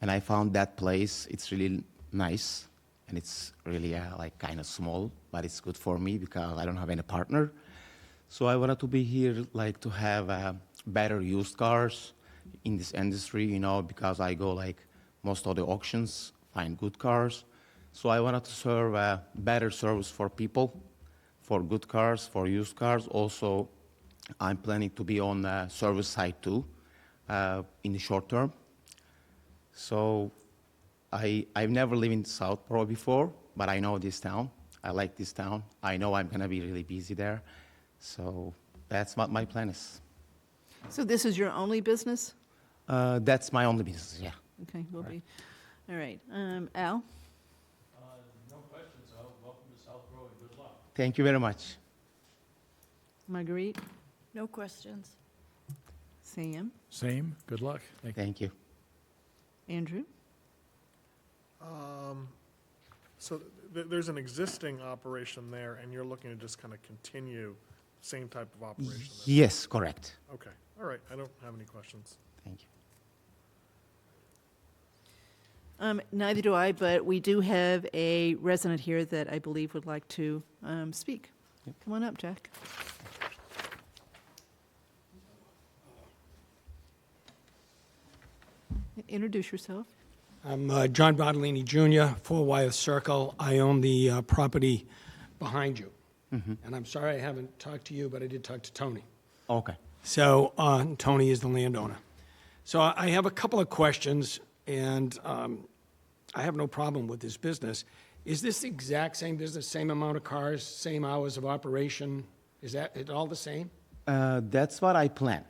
and I found that place. It's really nice, and it's really uh, like kind of small, but it's good for me because I don't have any partner. So I wanted to be here, like to have uh, better used cars in this industry, you know, because I go like most of the auctions, find good cars. So I wanted to serve a better service for people, for good cars, for used cars. Also, I'm planning to be on the service side too, uh, in the short term. So I, I've never lived in South Pro before, but I know this town. I like this town. I know I'm going to be really busy there. So that's what my plan is. So this is your only business? Uh, that's my only business, yeah. Okay, will be, all right. Um, Al? Uh, No questions, Al. Welcome to South Row and good luck. Thank you very much. Marguerite? No questions. Sam? Same, good luck. Thank you. Thank you. Andrew? Um, So th- th- there's an existing operation there, and you're looking to just kind of continue same type of operation? there? Yes, correct. Okay, all right, I don't have any questions. Thank you. Um, neither do I, but we do have a resident here that I believe would like to, um, speak. Come on up, Jack. Introduce yourself. I'm uh, John Bottolini Jr., Four Wyeth Circle. I own the uh, property behind you. And I'm sorry I haven't talked to you, but I did talk to Tony. Okay. So uh, Tony is the landowner. So I I have a couple of questions, and um, I have no problem with this business. Is this the exact same business, same amount of cars, same hours of operation? Is that it all the same? Uh, that's what I plan.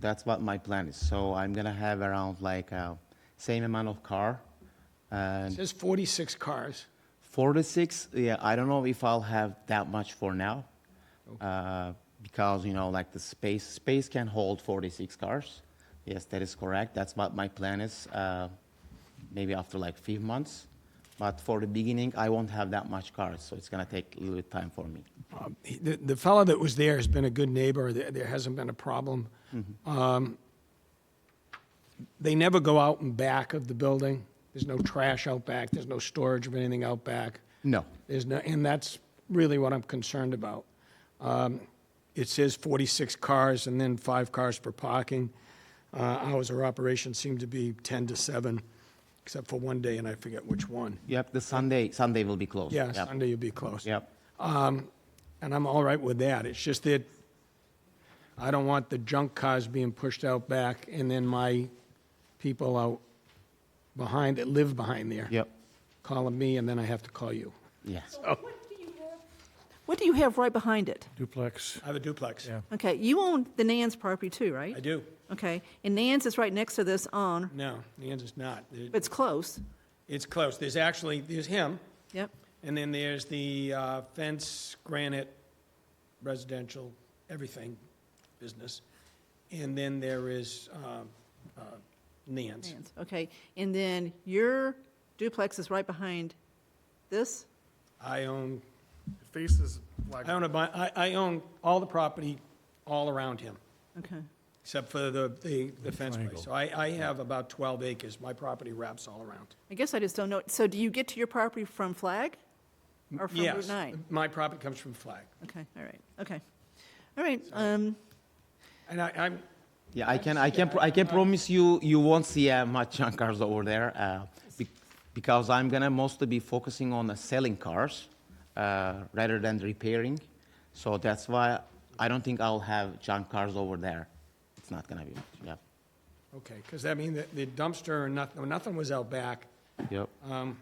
That's what my plan is. So I'm gonna have around like uh, same amount of car, It and says 46 cars. 46. Yeah, I don't know if I'll have that much for now, uh, because you know like the space space can hold 46 cars. Yes, that is correct. That's what my plan is. Uh, maybe after like five months, but for the beginning, I won't have that much cars, so it's gonna take a little bit time for me. Um, he- The, the fellow that was there has been a good neighbor. There, there hasn't been a problem. Um, They never go out and back of the building. There's no trash out back. There's no storage of anything out back. No. There's no, and that's really what I'm concerned about. Um, It says 46 cars and then five cars for parking. Uh, Hours of operation seem to be 10 to 7, except for one day, and I forget which one. Yep. The Sunday Sunday will be closed. Yeah, Yep. Sunday you'll be closed. Yep. And I'm all right with that. It's just that I don't want the junk cars being pushed out back and then my people out behind, that live behind there. Yep. Calling me and then I have to call you. Yeah. What do you have right behind it? Duplex, I have a duplex. Yeah. Okay, you own the Nans property too, right? I do. Okay, and Nans is right next to this on, No, the answer's not. It- but it's close. It's close. There's actually, there's him, Yep, and then there's the uh, fence, granite, residential, everything business. And then there is uh, uh, Nan's. Nans, okay. And then your duplex is right behind this? I own It faces Black, I own a, bu- I, I own all the property all around him, Okay, except for the, the, the fence triangle. place. So I, I have about twelve acres, my property wraps all around. I guess I just don't know, so do you get to your property from Flag? Or from Route Yes, 9? My property comes from Flag, Okay, all right, okay. All right, um, and I, I'm, Yeah, I can, I can, pro- I can promise you, you won't see uh, much junk cars over there, uh, be- because I'm gonna mostly be focusing on uh, selling cars uh, rather than repairing. So that's why I don't think I'll have junk cars over there. It's not gonna be much. Yeah. okay, because I mean, the- the dumpster and nothing, nothing was out back. Yep. Um,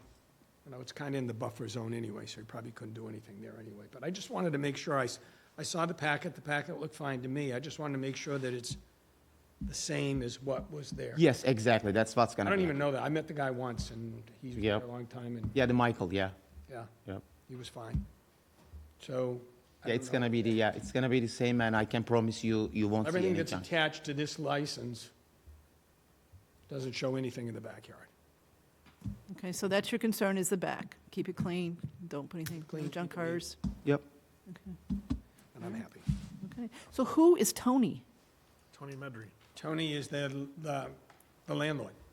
You know, it's kind of in the buffer zone anyway, so he probably couldn't do anything there anyway. But I just wanted to make sure, I, s- I saw the packet, the packet looked fine to me. I just wanted to make sure that it's the same as what was there. Yes, exactly. That's what's gonna. I don't be even know that. I met the guy once, and he's been Yep. there a long time, and, Yeah, the Michael. Yeah. yeah, Yep. he was fine. So. I Yeah, don't it's know. gonna be the, yeah, it's gonna be the same, and I can promise you, you won't see Everything any that's junk. attached to this license doesn't show anything in the backyard. okay, so that's your concern is the back. Keep it clean, don't put anything, no Clean, junk keep it neat. cars. Yep. Okay, And Hmm. I'm happy. okay. So who is Tony? Tony Medry. Tony is the, the the landlord.